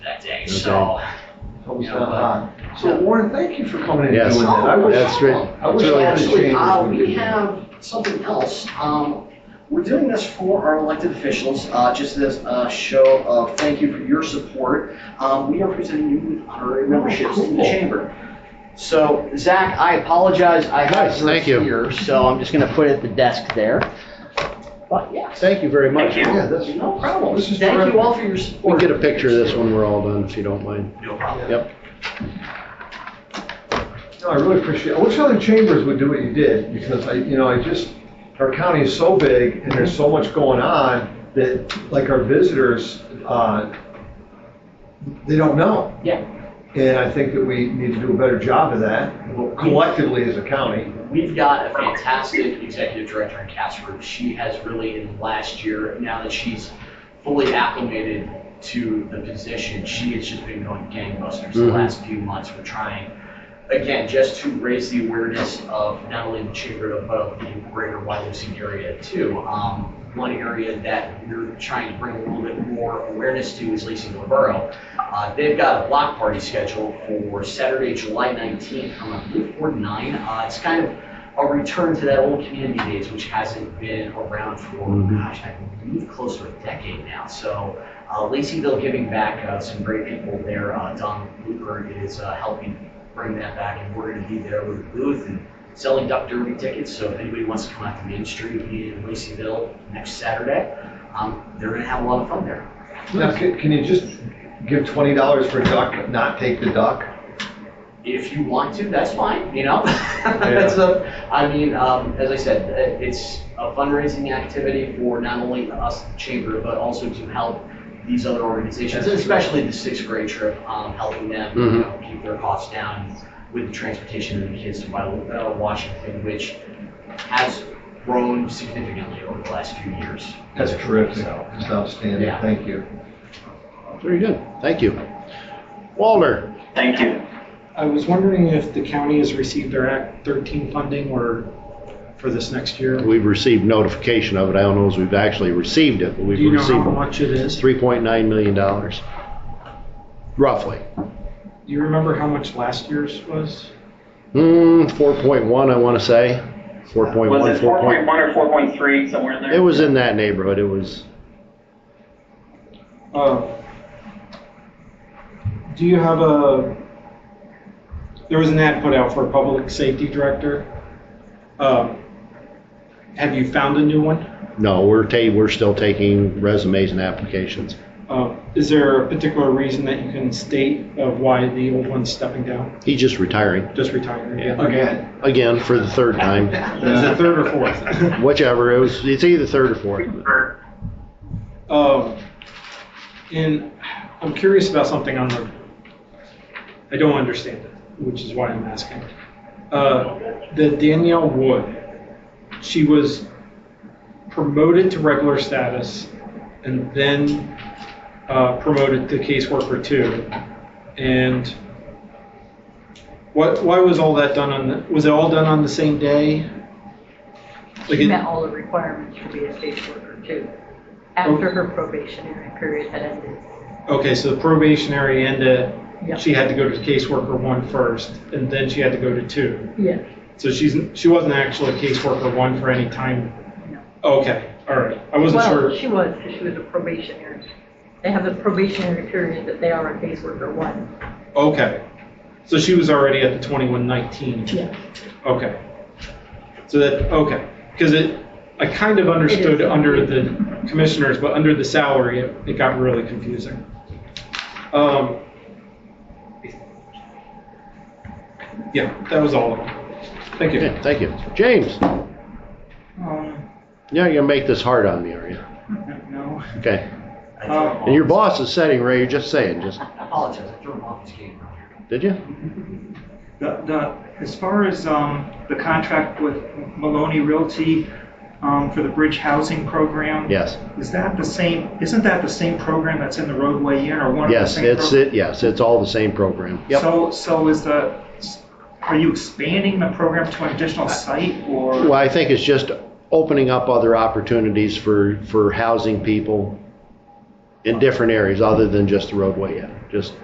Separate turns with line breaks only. so.
so.
But we spent time. So Warren, thank you for coming in and
Yes,
doing that. I wish-
that's right.
I wish
It's
I
really
had a
Actually,
interesting.
change.
uh,
when
we
did that.
have something else. Um, we're doing this for our elected officials, uh, just as a show of thank you for your support. Um, we are presenting you with honorary memberships in the
cool.
chamber. So Zach, I apologize. I have
Nice,
yours
thank you.
here, so I'm just gonna put it at the desk there. But yes.
Thank you very much.
Thank you.
Yeah, that's-
No problem.
This is
Thank
terrific.
you all for your
We can
support.
get a picture of this when we're all done, if you don't mind.
No problem.
Yep.
No, I really appreciate, it. I wish other chambers would do what you did, because I, you know, I just, our county is so big, and there's so much going on, that, like, our visitors, uh, they don't know.
Yeah.
And I think that we need to do a better job of that, collectively as a county.
We've got a fantastic executive director in Casper. She has really, in the last year, now that she's fully acclimated to the position, she has just been going gangbusters the
Mhm.
last few months. We're trying, again, just to raise the awareness of not only the chamber, but of the greater Wileausean area too. Um, One area that we're trying to bring a little bit more awareness to is Lacey Borough. Uh, They've got a block party scheduled for Saturday, July 19th from, I believe, 4 to 9. Uh, It's kind of a return to that old community days, which hasn't been around for,
Mhm.
gosh, I believe close to a decade now. So uh, Laceyville Giving Back, uh, some great people there. Uh, Don Luker is uh, helping bring that back, and we're going to be there with a booth and selling Duck Derby tickets. So if anybody wants to come out to Main Street in Laceyville next Saturday, um, they're going to have a lot of fun there.
Now, can, can you just give twenty dollars for a duck, but not take the duck?
if you want to, that's fine, you know? That's a, I mean, um, as I said, uh, it's a fundraising activity for not only us, the chamber, but also to help these other organizations,
That's true.
especially the sixth grade trip, um, helping them, you
Mhm.
Mm-hmm.
know, keep their costs down with the transportation of the kids to Wa- uh, Washington, which has grown significantly over the last few years.
That's terrific.
So-
That's outstanding.
Yeah.
Thank you.
Very good. Thank you. Walter,
Thank you.
I was wondering if the county has received their Act 13 funding or for this next year? Do
we've received notification of it. I don't know if we've actually received it, but we've
you know how
received it.
much it is? Do
Three point nine million dollars, roughly.
you remember how much last year's was?
Hmm, four point one, I want to say. Four point
Was
one,
it
four
four
point.
point one or four point three, somewhere in there?
It was in that neighborhood. It was,
Uh, Do you have a, there was an ad put out for a public safety director. Um, Have you found a new one?
no, we're ta, we're still taking resumes and applications.
Uh, Is there a particular reason that you can state of why the old one's stepping down?
He's just retiring,
Just retiring?
Yeah.
Again,
again, for the third time,
Is it third or fourth?
whichever. It was, it's either third or fourth.
Um, and I'm curious about something on the, I don't understand it, which is why I'm asking. Uh, the Danielle Wood, she was promoted to regular status and then uh, promoted to caseworker two. And what, why was all that done on, the was it all done on the same day? Like
She
it-
met all the requirements to be a caseworker too, after her probationary period had ended.
Okay, so the probationary ended,
Yeah.
she had to go to caseworker one first, and then she had to go to two.
Yes.
So she's, she wasn't actually caseworker one for any time? Okay, all right, I wasn't
Well,
sure.
she was, 'cause she was a probationary. They have the probationary period that they are a caseworker one.
Okay, so she was already at the twenty-one nineteen?
Yes.
Okay. So that, okay, because it, I kind of understood under the commissioners, but under the salary, it, it got really confusing. Um, Yeah, that was all of them. Thank you.
Okay, thank you. James,
Um,
you're not gonna make this hard on me, are you?
no.
Okay.
I threw him
Uh,
off.
And your boss is setting, Ray, you're just saying, just,
I apologize, I threw him off his game earlier.
did you?
The, the, as far as, um, the contract with Maloney Realty, um, for the bridge housing program?
Yes,
Is that the same, isn't that the same program that's in the roadway in or one of the
yes,
same?
it's,
pro-
it. yes, it's all the same program. Yep.
So, so is the, are you expanding the program to an additional site
Well,
or?
I think it's just opening up other opportunities for, for housing people in different areas other than just the roadway, yeah, just